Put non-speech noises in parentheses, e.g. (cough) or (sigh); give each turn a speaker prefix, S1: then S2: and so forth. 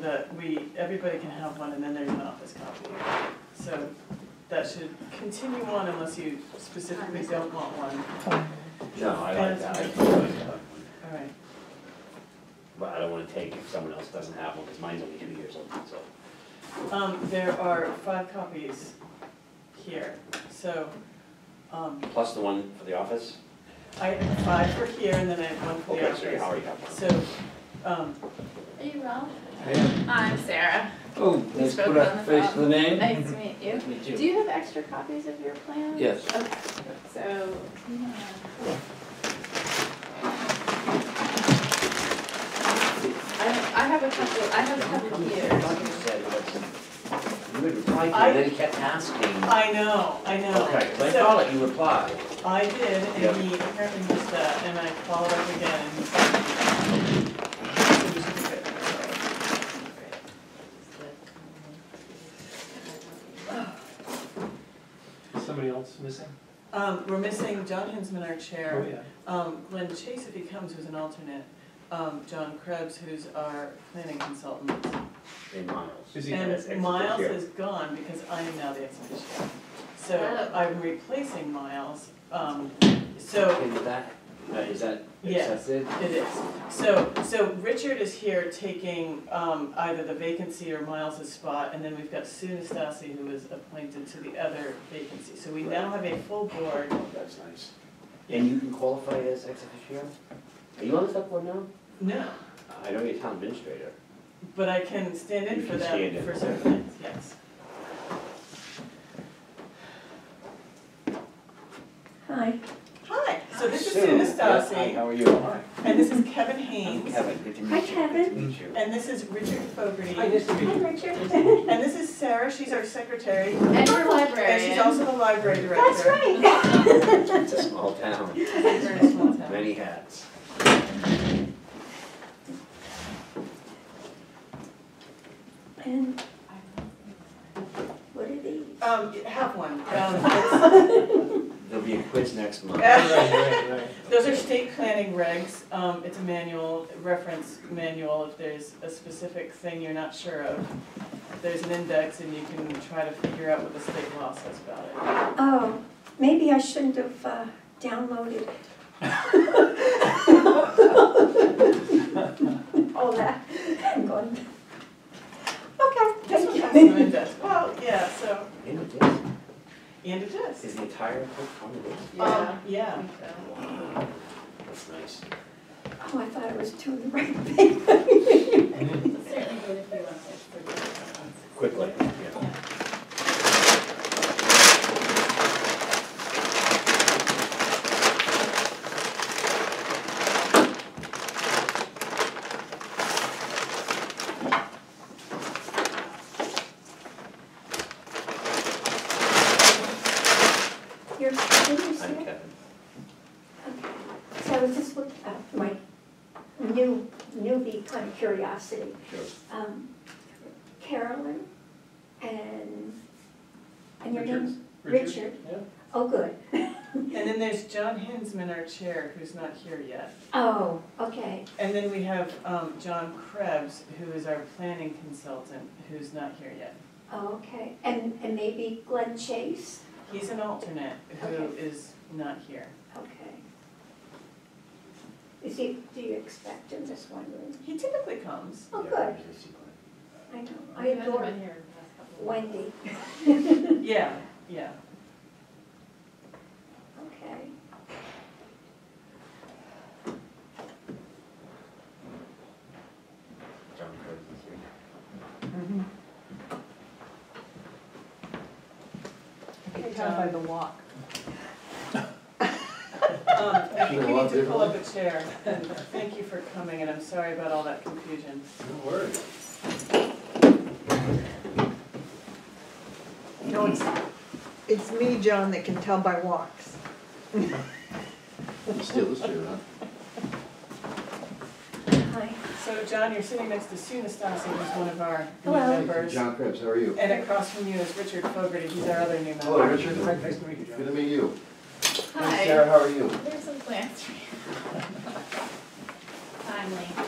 S1: but we, everybody can have one and then there's an office copy. So that should continue on unless you specifically don't want one,
S2: No, I like that, I
S1: That's-
S2: totally like that one.
S1: all right.
S2: But I don't wanna take if someone else doesn't have one, cause mine's only two years old, so.
S1: Um, there are five copies here, so, um,
S2: Plus the one for the office?
S1: I have five for here and then I have one for the
S2: Okay,
S1: office.
S2: so you already have one.
S1: So, um,
S3: Are you Ralph?
S4: Yeah.
S3: I'm Sarah.
S4: Oh,
S3: We
S4: let's
S3: spoke
S4: put
S3: on
S4: a
S3: the
S4: face to the name.
S3: Nice to meet you.
S2: Me
S3: Do you have extra copies of your plans?
S4: Yes.
S3: Okay, so, yeah. I, I have a couple, I have a couple
S2: Like
S3: here.
S2: you said, it was- you would reply to me,
S1: I-
S2: then he kept asking.
S1: I know, I know.
S2: Okay, 'cause I
S1: So-
S2: thought it, you replied.
S1: I did,
S2: Yeah.
S1: and he apparently missed that, and I followed up again, and he said. "You should do it."
S5: Is somebody else missing?
S1: Um, we're missing John Hinsman, our
S5: Oh,
S1: chair,
S5: yeah.
S1: um, Glenn Chase, if he comes, who's an alternate, um, John Krebs, who's our planning consultant.
S2: In Miles.
S5: Is he-
S2: As
S1: And
S2: executive
S1: Miles
S2: chair.
S1: is gone because I am now the exhibition. So
S3: Oh.
S1: I'm replacing Miles, um, so
S2: Okay, with that, uh, is that
S1: Yes.
S2: accepted?
S1: It is. So, so Richard is here taking um, either the vacancy or Miles's spot, and then we've got Sue Nastasi, who is appointed to the other vacancy. So we now have a full board.
S2: Oh, That's nice. And you can qualify as ex officio? Are you on the select board now?
S1: No,
S2: I know you're town administrator.
S1: but I can stand in
S2: You
S1: for
S2: can
S1: them
S2: stand in.
S1: for certain things, yes.
S6: Hi.
S1: Hi, so this is
S2: Sue,
S1: Sue
S2: yes, hi,
S1: Nastasi,
S2: How are you? Hi.
S1: and this is Kevin
S2: I'm
S1: Haynes,
S2: Kevin, good to
S6: Hi,
S2: meet you. Good to
S6: Kevin.
S2: meet you.
S1: and this is Richard
S2: Hi,
S1: Fogarty,
S2: nice to meet
S6: Hi,
S2: you.
S6: (laughs) Richard.
S1: and this is Sarah, she's our secretary,
S3: And your
S1: and she's
S3: librarian.
S1: also the library director.
S6: That's right.
S2: It's a small town,
S1: We're in a small town.
S2: many hats.
S6: And what are these?
S1: Um, have one, um, it's-
S2: There'll be a quiz next month.
S5: Right, right, right.
S1: Those are state planning regs, um, it's a manual, reference manual, if there's a specific thing you're not sure of, there's an index and you can try to figure out what the state law says about it.
S6: Oh, maybe I shouldn't have uh, (laughs) downloaded all that and gone. Okay,
S1: This one
S6: thank
S1: has no
S6: you.
S1: index, well, yeah, so,
S2: In the disc,
S1: and it is.
S2: is the entire book on the disc?
S3: Yeah.
S1: Um, yeah,
S2: Wow, that's nice.
S6: Oh, I thought I was doing the right thing.
S3: Certainly good if you want to.
S2: Quickly, yeah.
S6: You're, did you see
S2: I'm
S6: it?
S2: Kevin.
S6: Okay. So I was just looking, uh, my new, newbie kind of curiosity.
S2: Sure.
S6: um, Carolyn and, and your
S5: Richard.
S6: name? Richard.
S5: Yeah.
S6: Oh, good. (laughs)
S1: and then there's John Hinsman, our chair, who's not here yet.
S6: Oh, okay.
S1: And then we have, um, John Krebs, who is our planning consultant, who's not here yet.
S6: Oh, okay. And, and maybe Glenn Chase?
S1: He's an alternate who
S6: Okay.
S1: is not here.
S6: Okay. Is he, do you expect him this one room?
S1: He typically comes.
S6: Oh,
S2: Yeah,
S6: good.
S2: there's this one.
S6: I know. I adore
S3: been here the last couple of weeks.
S6: Wendy. (laughs)
S1: Yeah, (laughs) yeah.
S6: Okay.
S2: John Curtis is here.
S1: Okay,
S7: down
S1: John.
S7: by the walk.
S1: Um, I think
S4: Sure,
S1: you
S4: I'll
S1: need to
S4: do
S1: pull
S4: one.
S1: up a chair, and thank you for coming, and I'm sorry about all that confusion.
S5: No worries.
S7: No, it's, it's me, John, that can tell by walks.
S4: Still, let's do that.
S6: Hi.
S1: So John, you're sitting next to Sue Nastasi, who's one of our new
S6: Hello.
S1: members.
S8: John Krebs, how are you?
S1: And across from you is Richard Fogarty, he's our other new member.
S8: Hello, Richard.
S5: Nice nice to meet you,
S8: Good to
S5: John.
S8: meet you. Hey,
S3: Hi. (laughs)
S8: Sarah, how are you?
S3: There's some plants. Timely.